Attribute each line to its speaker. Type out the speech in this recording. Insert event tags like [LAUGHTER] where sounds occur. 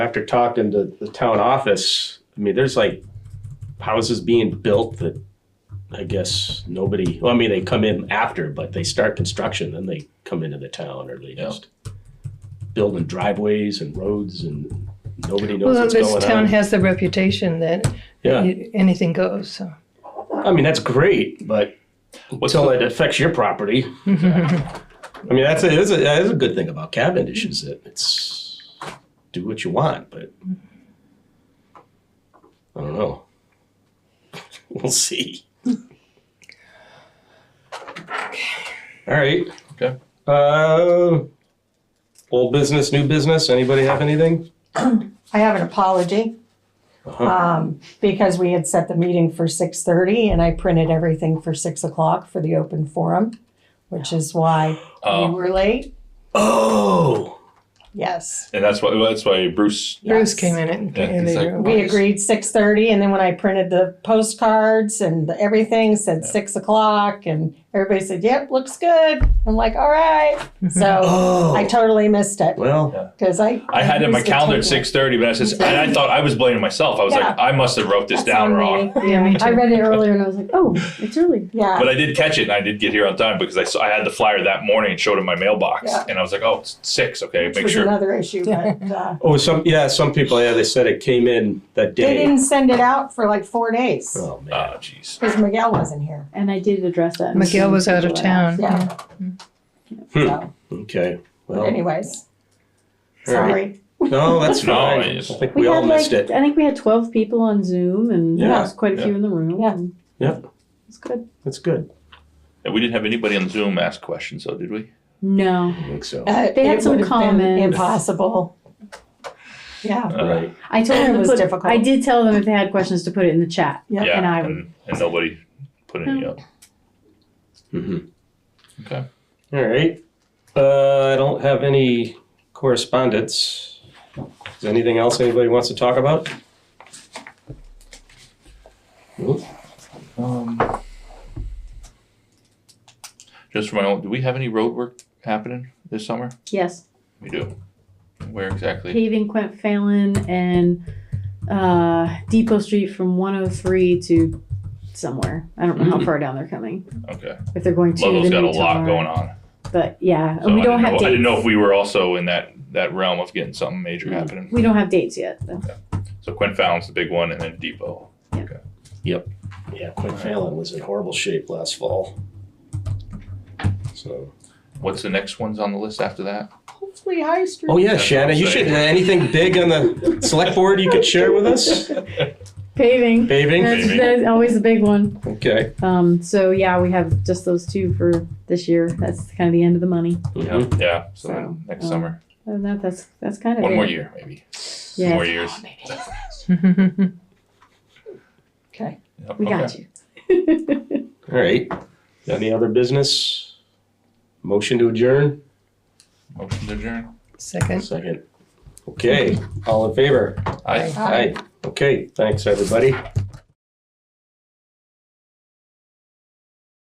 Speaker 1: after talking to the town office, I mean, there's like houses being built that I guess nobody, well, I mean, they come in after, but they start construction, then they come into the town or they
Speaker 2: Yeah.
Speaker 1: just building driveways and roads and nobody knows
Speaker 3: Well,
Speaker 1: what's
Speaker 3: this
Speaker 1: going
Speaker 3: town
Speaker 1: on.
Speaker 3: has the reputation that
Speaker 1: Yeah,
Speaker 3: you- anything goes, so.
Speaker 1: I mean, that's great, but
Speaker 2: What's
Speaker 1: until
Speaker 2: the-
Speaker 1: it affects your
Speaker 2: [LAUGHS]
Speaker 1: property. I mean, that's a, that's a, that's a good thing about Cavendish is that it's, do what you want, but I don't know. [LAUGHS] We'll see. All right.
Speaker 2: Okay.
Speaker 1: Uh, old business, new business, anybody have anything?
Speaker 4: I have an apology.
Speaker 2: Uh-huh.
Speaker 4: Um, because we had set the meeting for six thirty and I printed everything for six o'clock for the open forum, which is why we
Speaker 2: Oh.
Speaker 4: were late.
Speaker 1: Oh,
Speaker 4: Yes.
Speaker 2: And that's why that's why Bruce.
Speaker 3: Bruce
Speaker 4: yes.
Speaker 3: came in and.
Speaker 2: Yeah,
Speaker 3: and
Speaker 2: he's
Speaker 3: they
Speaker 2: like,
Speaker 3: were-
Speaker 4: We agreed six thirty and then when I printed the postcards and the everything said six o'clock and everybody said, yep, looks good. I'm like, all right.
Speaker 3: Mm-hmm.
Speaker 4: So
Speaker 1: oh.
Speaker 4: I totally missed it
Speaker 1: well,
Speaker 4: because I.
Speaker 2: I had it in my
Speaker 4: missed the
Speaker 2: calendar at
Speaker 4: timeline.
Speaker 2: six thirty, but I said, and I thought I was blaming myself. I was like,
Speaker 4: Yeah.
Speaker 2: I must have wrote this
Speaker 4: That's
Speaker 2: down
Speaker 4: on
Speaker 2: wrong.
Speaker 4: me.
Speaker 3: Yeah, me
Speaker 5: I
Speaker 3: too.
Speaker 5: read it earlier and I was like, oh, it's early.
Speaker 4: Yeah.
Speaker 2: But I did catch it and I did get here on time because I saw, I had the flyer that morning and showed it in my mailbox.
Speaker 4: Yeah.
Speaker 2: And I was like, oh, it's six. Okay,
Speaker 4: Which
Speaker 2: make
Speaker 4: was
Speaker 2: sure.
Speaker 4: another issue,
Speaker 3: [LAUGHS]
Speaker 4: but, uh,
Speaker 1: oh, some, yeah, some people, yeah, they said it came in that
Speaker 4: They
Speaker 1: day.
Speaker 4: didn't send it out for like four days
Speaker 1: Oh, man.
Speaker 2: Ah, jeez.
Speaker 4: because Miguel wasn't here.
Speaker 5: And I did address that. in the
Speaker 3: Miguel was out of
Speaker 5: meeting.
Speaker 3: town.
Speaker 4: Yeah.
Speaker 1: Hmm.
Speaker 4: So,
Speaker 1: Okay.
Speaker 4: but
Speaker 1: Well,
Speaker 4: anyways,
Speaker 1: all right.
Speaker 4: sorry.
Speaker 1: No,
Speaker 2: [LAUGHS]
Speaker 1: that's
Speaker 2: No,
Speaker 1: fine.
Speaker 2: I
Speaker 1: I
Speaker 2: just-
Speaker 1: think we, all
Speaker 5: had like,
Speaker 1: missed it.
Speaker 5: I think we had 12 people on Zoom and
Speaker 1: Yeah.
Speaker 5: there was quite a few in the room.
Speaker 4: Yeah.
Speaker 5: and
Speaker 1: Yep.
Speaker 5: It was good.
Speaker 1: That's good.
Speaker 2: And we didn't have anybody on Zoom ask questions, though, did we?
Speaker 5: No.
Speaker 1: I think so.
Speaker 4: Uh,
Speaker 5: They had
Speaker 4: it
Speaker 5: some
Speaker 4: would've been
Speaker 5: comments.
Speaker 4: Impossible. Yeah.
Speaker 2: Uh,
Speaker 1: right.
Speaker 5: I told
Speaker 4: It
Speaker 5: them to
Speaker 4: was
Speaker 5: put,
Speaker 4: difficult.
Speaker 5: I did tell them if they had questions to put it in the chat.
Speaker 4: Yeah,
Speaker 2: Yeah.
Speaker 5: and I-
Speaker 2: and, and nobody put any up.
Speaker 1: Mhm.
Speaker 2: Okay.
Speaker 1: All right. Uh, I don't have any correspondence. Is there anything else anybody wants to talk about? Nope.
Speaker 2: Um, just for my own, do we have any road work happening this summer?
Speaker 5: Yes.
Speaker 2: We do. Where exactly?
Speaker 5: Paving Quent Fallon and uh, Depot Street from 103 to somewhere. I don't know how
Speaker 1: Mm.
Speaker 5: far down they're coming.
Speaker 2: Okay.
Speaker 5: If they're going to
Speaker 2: Logo's
Speaker 5: the
Speaker 2: Mm-hmm. got
Speaker 5: new
Speaker 2: a lot
Speaker 5: tower.
Speaker 2: going on.
Speaker 5: But yeah,
Speaker 2: So
Speaker 5: we
Speaker 2: I
Speaker 5: don't
Speaker 2: didn't
Speaker 5: have
Speaker 2: know,
Speaker 5: dates.
Speaker 2: I didn't know if we were also in that, that realm of getting something major
Speaker 1: Mm.
Speaker 2: happening.
Speaker 5: We don't have dates yet. though.
Speaker 2: So Quinn Fallon's the big one, and then Depot.
Speaker 1: Yeah, Quinn Fallon was in horrible shape last fall. So.
Speaker 2: What's the next ones on the list after that?
Speaker 5: [LAUGHS]
Speaker 4: Hopefully High Street.
Speaker 1: Oh yeah,
Speaker 2: That's
Speaker 1: Shannon, you should.
Speaker 2: insane.
Speaker 1: Uh, anything big on the select board you could share with us?
Speaker 2: [LAUGHS]
Speaker 5: Paving.
Speaker 1: Paving.
Speaker 5: That's,
Speaker 2: Paving.
Speaker 5: that's always the big one.
Speaker 1: Okay.
Speaker 5: Um, so yeah, we have just those two for this year. That's kind of the end of the money.
Speaker 1: Mhm.
Speaker 2: Yeah, yeah. So, then
Speaker 5: So,
Speaker 2: next
Speaker 5: um,
Speaker 2: summer,
Speaker 5: Other than that, that's that's kind of
Speaker 2: one
Speaker 5: it.
Speaker 2: more year maybe. Two
Speaker 5: Yes.
Speaker 2: More
Speaker 4: Oh,
Speaker 2: years.
Speaker 4: Okay.
Speaker 2: Yep,
Speaker 5: We
Speaker 2: okay.
Speaker 5: got you.
Speaker 1: All right. Any other business? Motion to adjourn?
Speaker 2: Motion to adjourn.
Speaker 3: [LAUGHS] Second.
Speaker 1: Second. Okay, all in favor?
Speaker 2: Aye.
Speaker 1: Okay, thanks, everybody.